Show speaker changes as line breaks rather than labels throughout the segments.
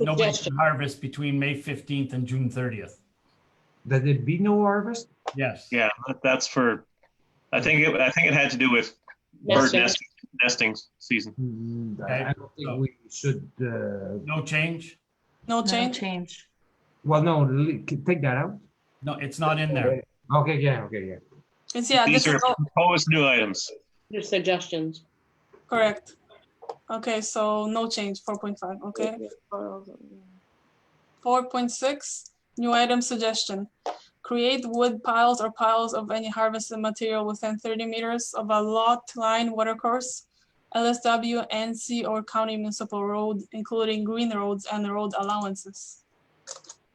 nobody
Suggestion.
can harvest between May 15th and June 30th.
that there be no harvest?
Yes.
Yeah, that- that's for, I think, it- I think it had to do with bird
Nesting.
nesting, nesting season.
Mm,
Okay.
I I don't
So-
think we should, uh,
No change?
No
No
change?
change.
well, no, li- take that out.
No, it's not in there.
Okay, yeah, okay, yeah.
It's, yeah, this
These are
is all
proposed new items.
Your suggestions.
correct. Okay, so no change, four point five, okay? Four point six, new item suggestion. Create wood piles or piles of any harvested material within thirty meters of a lot line watercourse, LSW, NC, or county municipal road, including green roads and road allowances.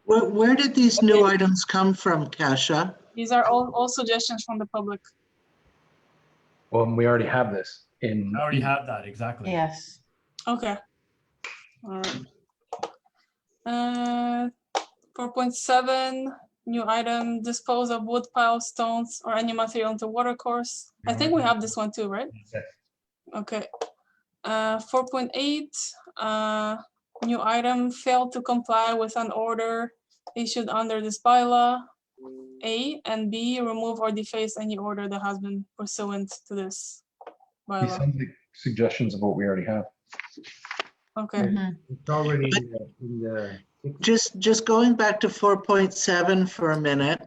Where, where did these new items come from, Kasia?
These are all, all suggestions from the public.
Well, and we already have this in.
I already have that, exactly.
Yes.
Okay. All right. Uh, four point seven, new item, dispose of wood piles, stones, or any material into watercourse. I think we have this one too, right?
Yes.
Okay. Uh, four point eight, uh, new item, failed to comply with an order issued under this bylaw. A and B, remove or deface any order that has been pursuant to this
These
bylaw.
sound like Suggestions of what we already have.
Okay.
Mhm.
It's already in the- in the,
Just, just going back to 4.7 for a minute.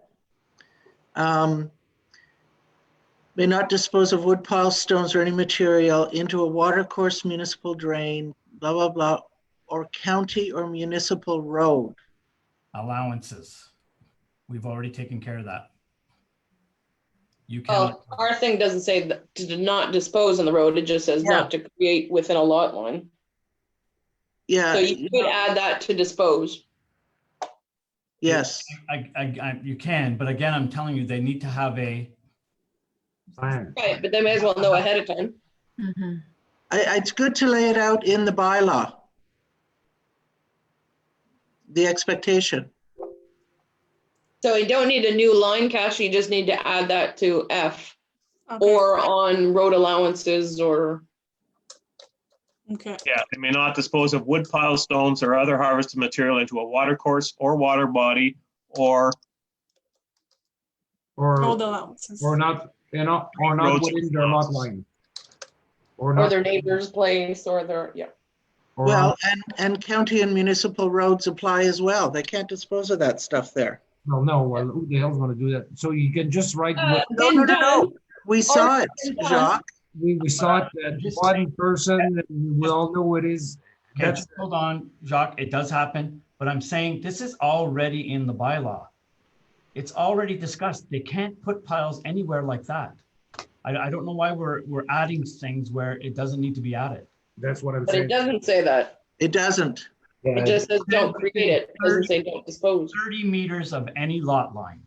Um, May not dispose of wood piles, stones, or any material into a watercourse, municipal drain, blah, blah, blah, or county or municipal road.
Allowances. We've already taken care of that. You
Oh,
cannot,
our thing doesn't say that- to not dispose on the road. It just says not to create within a lot line.
Yeah.
So you could add that to dispose.
Yes,
I, I, I, you can, but again, I'm telling you, they need to have a,
plan.
Right, but they may as well know ahead of time.
Mhm.
I, I- it's good to lay it out in the bylaw. The expectation.
So you don't need a new line, Kasia. You just need to add that to F
okay,
or uh, on road allowances or.
Okay.
Yeah, they may not dispose of wood piles, stones, or other harvested material into a watercourse or water body or
Road
or,
allowances.
or not, you know, or not
Roads.
within their lot line. Or
Or
not.
their neighbor's place or their, yeah.
or
Well,
not-
and, and county and municipal roads apply as well. They can't dispose of that stuff there.
No, no, well, who the hell's gonna do that? So you can just write,
Uh,
what-
Uh, No, no, no, no. We saw it,
it's done.
Jacques.
we, we saw it, that
Just
one person, and we all know who it is.
okay,
That's-
just hold on, Jacques, it does happen, but I'm saying this is already in the bylaw. It's already discussed. They can't put piles anywhere like that. I, I don't know why we're, we're adding things where it doesn't need to be added.
That's what I'm
But it
saying.
doesn't say that.
It doesn't.
Yeah,
It just says don't create it. It Doesn't say don't dispose.
30 meters of any lot line.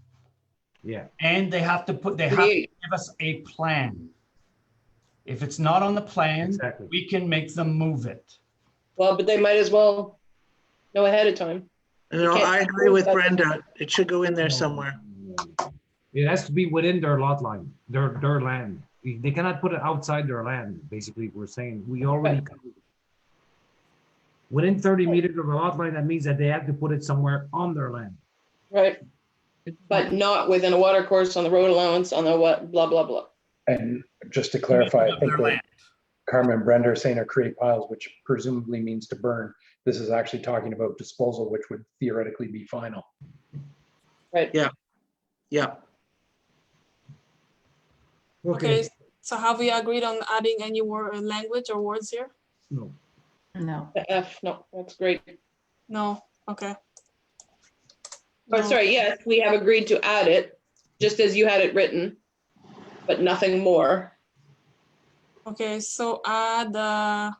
Yeah,
And they have to put, they have to
Create.
give us a plan. If it's not on the plan,
exactly.
we can make them move it.
Well, but they might as well know ahead of time.
You know,
Okay.
I agree with Brenda. It should go in there somewhere.
It has to be within their lot line, their, their land. They cannot put it outside their land, basically, we're saying, we already. covered it. Within thirty meters of the lot line, that means that they have to put it somewhere on their land.
Right. But not within a water course on the road allowance on the what, blah, blah, blah.
And just to clarify, I think
Their land.
what Carmen and Brenda are saying are create piles, which presumably means to burn. This is actually talking about disposal, which would theoretically be final.
Right.
Yeah.
Okay, so have we agreed on adding any word, uh, language or words here?
No.
No.
The F, no, that's great.
No, okay.
Or
No.
Oh, sorry, yes, we have agreed to add it, just as you had it written, but nothing more.
Okay, so add, uh,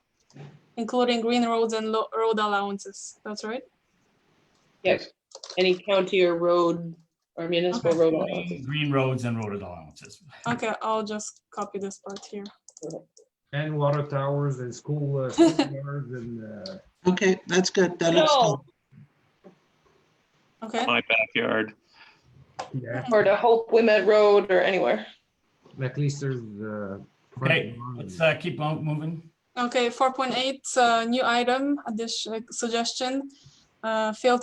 including green roads and lo- road allowances, that's right?
Yes. Any county or road or municipal road allowances.
Green roads and road allowances.
Okay, I'll just copy this part here.
And water towers and school, uh, school yards and, uh,
Okay, that's good. That looks
No.
good.
Okay,
my backyard.
yeah,
Or to Hope Women Road or anywhere.
at least there's, uh. front
Okay,
lawn.
let's uh, keep on moving.
Okay, four point eight, uh, new item, addition, suggestion. Uh, fill